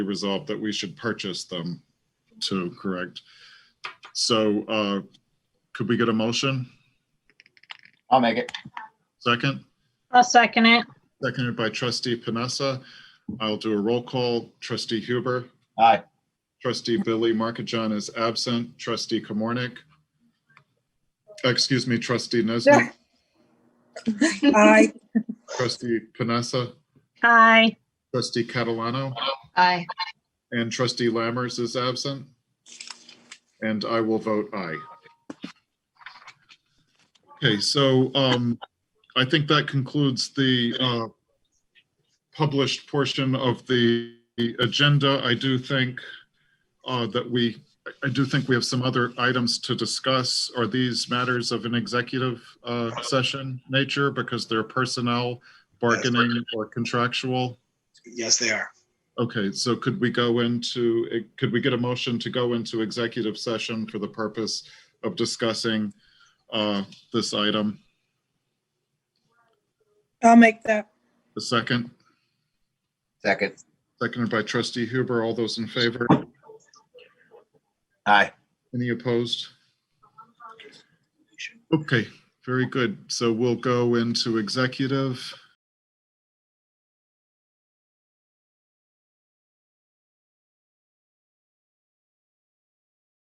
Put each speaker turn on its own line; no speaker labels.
resolved that we should purchase them too, correct? So uh, could we get a motion?
I'll make it.
Second,
I'll second it.
seconded by trustee Panessa. I'll do a roll call. Trustee Huber,
Aye.
trustee Billy Markajon is absent, trustee Kamornik. Excuse me, trustee Nesbit,
Aye.
trustee Panessa,
Aye.
trustee Catalano.
Aye.
And trustee Lammers is absent. And I will vote aye. Okay, so um, I think that concludes the uh, published portion of the agenda. I do think uh, that we, I do think we have some other items to discuss. Are these matters of an executive uh, session nature because they're personnel, bargaining, or contractual?
Yes, they are.
Okay, so could we go into, could we get a motion to go into executive session for the purpose of discussing uh, this item?
I'll make that.
The second,
Second.
seconded by trustee Huber. All those in favor?
Aye.
Any opposed? Okay, very good. So we'll go into executive